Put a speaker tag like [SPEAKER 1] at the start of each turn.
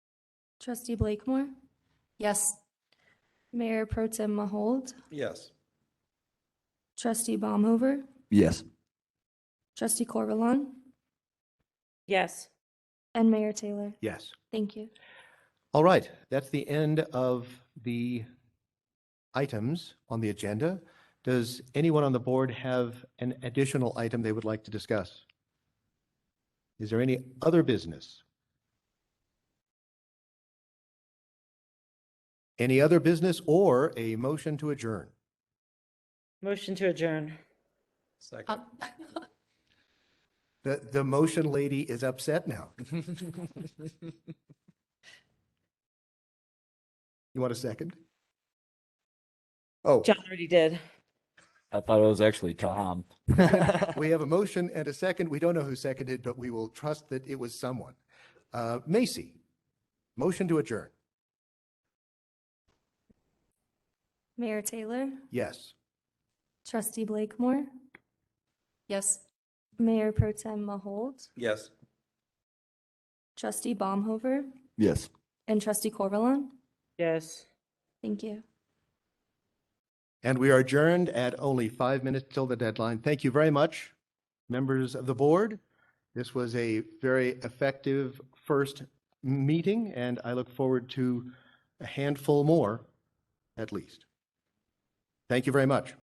[SPEAKER 1] Trustee Blakemore,
[SPEAKER 2] Yes.
[SPEAKER 1] Mayor Pro Tem Mahold,
[SPEAKER 3] Yes.
[SPEAKER 1] Trustee Baumhover,
[SPEAKER 4] Yes.
[SPEAKER 1] Trustee Corvalon,
[SPEAKER 5] Yes.
[SPEAKER 1] and Mayor Taylor.
[SPEAKER 3] Yes.
[SPEAKER 1] Thank you.
[SPEAKER 3] All right, that's the end of the items on the agenda. Does anyone on the board have an additional item they would like to discuss? Is there any other business? Any other business or a motion to adjourn?
[SPEAKER 5] Motion to adjourn.
[SPEAKER 4] Second.
[SPEAKER 2] Um,
[SPEAKER 3] The, the motion lady is upset now. You want a second? Oh,
[SPEAKER 5] John already did.
[SPEAKER 4] I thought it was actually Tom.
[SPEAKER 3] we have a motion and a second. We don't know who seconded, but we will trust that it was someone. Uh, Macy, motion to adjourn.
[SPEAKER 1] Mayor Taylor,
[SPEAKER 3] Yes.
[SPEAKER 1] Trustee Blakemore,
[SPEAKER 2] Yes.
[SPEAKER 1] Mayor Pro Tem Mahold,
[SPEAKER 4] Yes.
[SPEAKER 1] Trustee Baumhover,
[SPEAKER 4] Yes.
[SPEAKER 1] and Trustee Corvalon.
[SPEAKER 5] Yes.
[SPEAKER 1] Thank you.
[SPEAKER 3] And we are adjourned at only five minutes till the deadline. Thank you very much, members of the board. This was a very effective first meeting, and I look forward to a handful more, at least. Thank you very much.